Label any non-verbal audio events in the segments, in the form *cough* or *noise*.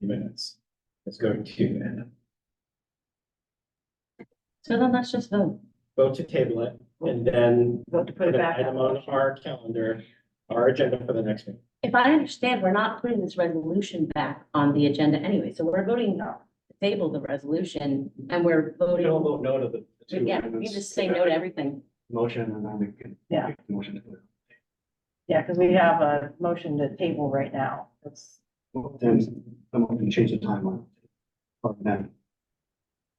minutes. Let's go to, So then let's just vote. vote to table it and then vote to put put it an back. item on our calendar, our agenda for the next meeting. If I understand, we're not putting this resolution back on the agenda anyway, so we're voting to table the resolution and we're We can all voting. vote no to the. the two Yeah, we amendments. just say no to everything. Motion and then we can. Yeah. make the Motion. to it. Yeah, because we have a motion to table right now. It's, Then someone can change the timeline. Or then,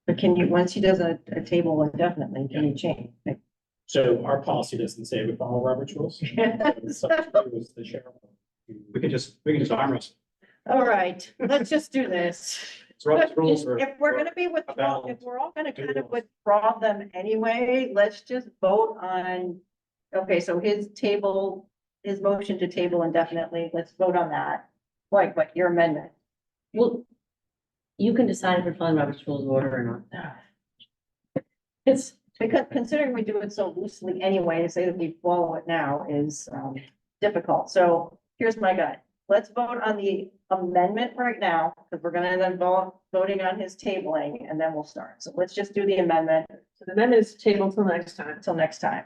but can you, once he does a, a table indefinitely, can you change? So our policy doesn't say we follow Robert's *laughs* rules. So it was the sheriff. we can just, we can just arm wrestle. All right, let's just do this. It's Robert's rules are- If we're gonna be withdraw, if we're all gonna kind of withdraw them anyway, let's just vote on. Okay, so his table, his motion to table indefinitely, let's vote on that. Like, what, your amendment? Well, you can decide if you're following Robert's rules of order or not. It's, Because considering we do it so loosely anyway, to say that we follow it now is um difficult. So here's my gut. Let's vote on the amendment right now, because we're gonna end up vo- voting on his tabling and then we'll start. So let's just do the amendment So the amendment is tabled till next time. until next time.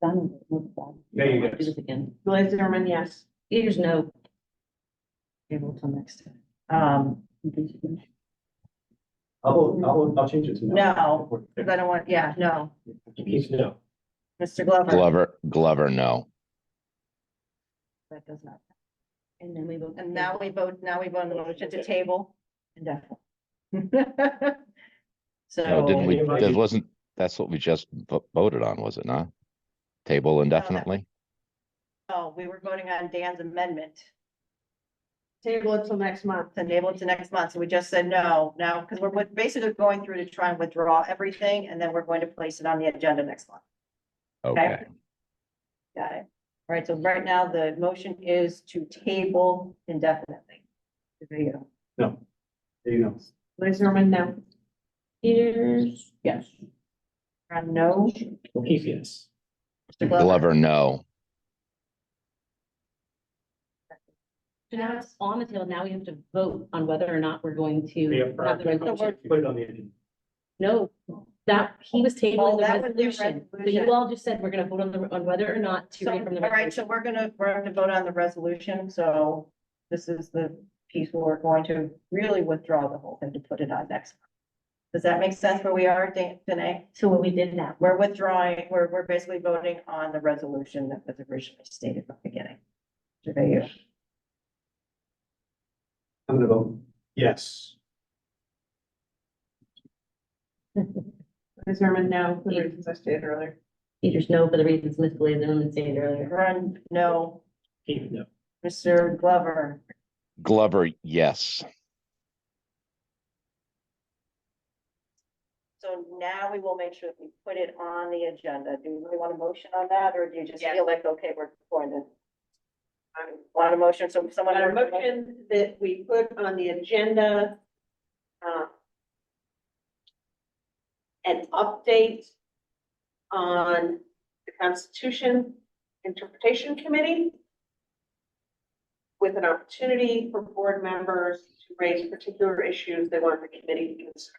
done. Move on. There you go. Do this again. Blaze Zimmerman, yes. Peters, no. Table till next time. Um, I'll, vote- I'll, vote- I'll change it to. No, because I don't want, yeah, no, He's no. Mr. Glover, Glover, Glover, no. that does not. And then we vote. And now we vote, now we vote on the motion to table indefinitely. *laughs* No, Oh, didn't So, we, that wasn't, that's what we just vo- voted on, was it not? Table indefinitely? oh, we were voting on Dan's amendment. Table it till next month. to enable it to next month. So we just said no now, because we're with- basically going through to try and withdraw everything, and then we're going to place it on the agenda next month. Okay, Got it? All right, so right now, the motion is to table indefinitely. There you go. No. There you go. Blaze Zimmerman, no. Peters, Yes. And no, O'Keefe, yes. Mr. Glover, Glover, no. so now it's on the table. Now we have to vote on whether or not we're going We to. have have the resolution. Put it on the agenda. No, that, he was Oh, tabling that the was the resolution, but resolution. you all just said we're gonna vote on the, on whether or not to So, read from the all right, so resolution. we're gonna, we're gonna vote on the resolution, so this is the piece where we're going to really withdraw the whole thing to put it on next. month. Does that make sense where we are, Dan- Danae? So what we did now, We're withdrawing, we're, we're basically voting on the resolution that was originally stated from the beginning. Mr. Bayou, I'm gonna vote yes. Blaze Zimmerman, no, for the reasons I stated earlier. Peters no for the reasons Ms. Blazen and stated earlier. Run, no. O'Keefe, no. Mr. Glover, Glover, yes. so now we will make sure that we put it on the agenda. Do you really want a motion on that, or do you just feel like, okay, we're going to? Want a motion, so someone. Got a motion that we put on the agenda. uh, An update on the Constitution Interpretation Committee. With an opportunity for board members to raise particular issues they want the committee to consider.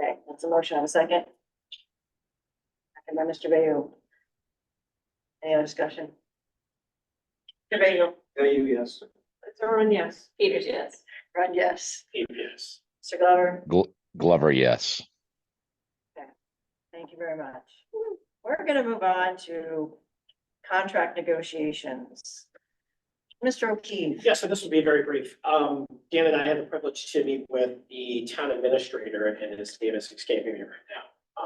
Okay, that's a motion, have a second. Second by Mr. Bayou. Any other discussion? Mr. Bayou. Bayou, yes. Zimmerman, yes. Peters, yes. Run, yes. O'Keefe, yes. Mr. Glover? Gl- Glover, yes. Thank you very much. We're gonna move on to contract negotiations. Mr. O'Keefe? Yeah, so this will be very brief. Um, Dan and I had the privilege to meet with the town administrator and his name is escaping me right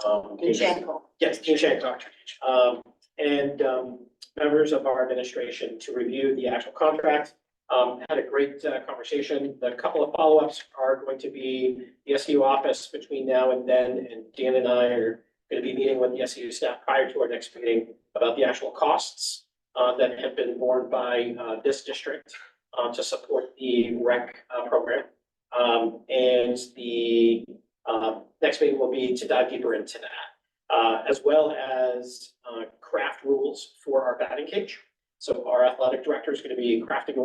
now. Um, Jankel. Yes, Dean Shancock. Um, and, um, members of our administration to review the actual contract. Um, had a great uh, conversation. The couple of follow-ups are going to be the SU office between now and then, and Dan and I are going to be meeting with the SU staff prior to our next meeting about the actual costs uh, that have been borne by, uh, this district, um, to support the rec, uh, program. Um, and the, uh, next meeting will be to dive deeper into that uh, as well as, uh, craft rules for our batting cage. So our athletic director is going to be crafting